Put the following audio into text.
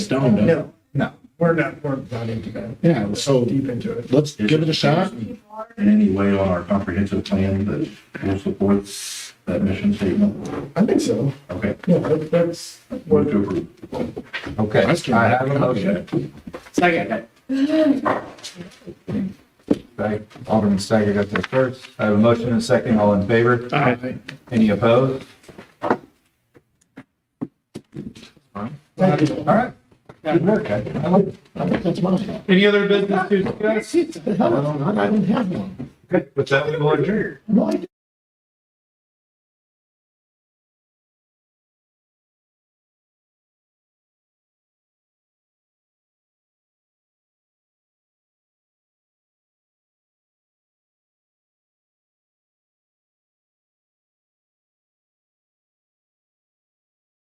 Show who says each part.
Speaker 1: Stone does.
Speaker 2: No,
Speaker 3: No.
Speaker 2: we're not, we're not into that.
Speaker 1: Yeah, so
Speaker 2: Deep into it.
Speaker 1: let's give it a shot.
Speaker 4: in any way on our comprehensive plan that will support that mission statement?
Speaker 2: I think so.
Speaker 4: Okay,
Speaker 2: Yeah, that- that's
Speaker 4: move
Speaker 2: what,
Speaker 4: to approve.
Speaker 3: Okay,
Speaker 1: That's good.
Speaker 3: I have a motion
Speaker 5: Second.
Speaker 3: by Alderman Steiger got there first. I have a motion and a second. All in favor?
Speaker 1: Aye.
Speaker 3: Any opposed?
Speaker 2: thank you.
Speaker 3: All right. Good work, guys. I like it.
Speaker 1: I think that's mine.
Speaker 6: Any other business to discuss?
Speaker 1: Shit, the hell, I don't have one.
Speaker 3: Good. With that, we will adjourn.
Speaker 1: No, I do.